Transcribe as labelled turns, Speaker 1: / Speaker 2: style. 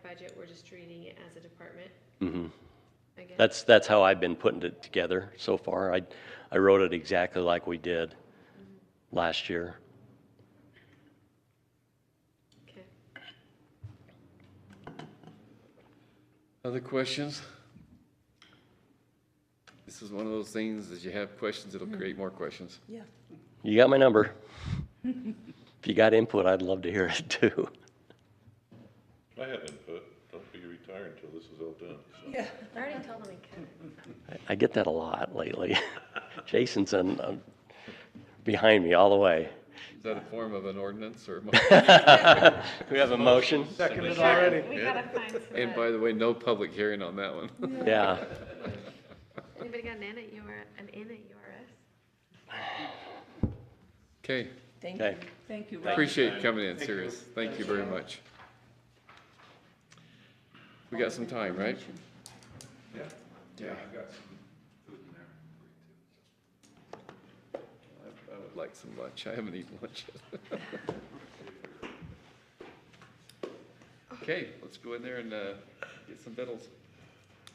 Speaker 1: budget, we're just treating it as a department,
Speaker 2: Mm-hmm.
Speaker 3: hmm
Speaker 1: I guess.
Speaker 3: That's, that's how I've been putting it together so far. I, I wrote it exactly like we did last year.
Speaker 1: Okay.
Speaker 2: Other questions? This is one of those things that you have questions, it'll create more questions.
Speaker 4: Yeah.
Speaker 3: You got my number. If you got input, I'd love to hear it too.
Speaker 5: I have input. Don't be retired until this is all done.
Speaker 4: Yeah.
Speaker 1: I already told them we could.
Speaker 3: I- I get that a lot lately. Jason's on, on- behind me all the way.
Speaker 2: Is that a form of an ordinance or?
Speaker 3: We have a motion?
Speaker 6: Seconded already.
Speaker 1: We gotta find some.
Speaker 2: And by the way, no public hearing on that one.
Speaker 3: Yeah.
Speaker 1: Anybody got an in at UR, an in at URS?
Speaker 2: Okay,
Speaker 4: Thank
Speaker 3: Okay.
Speaker 4: you. Thank you, Rob.
Speaker 2: appreciate you coming in, serious. Thank you very much. We got some time, right? Yeah. I I would like some lunch. I haven't eaten lunch yet. Okay, let's go in there and uh, get some vittles.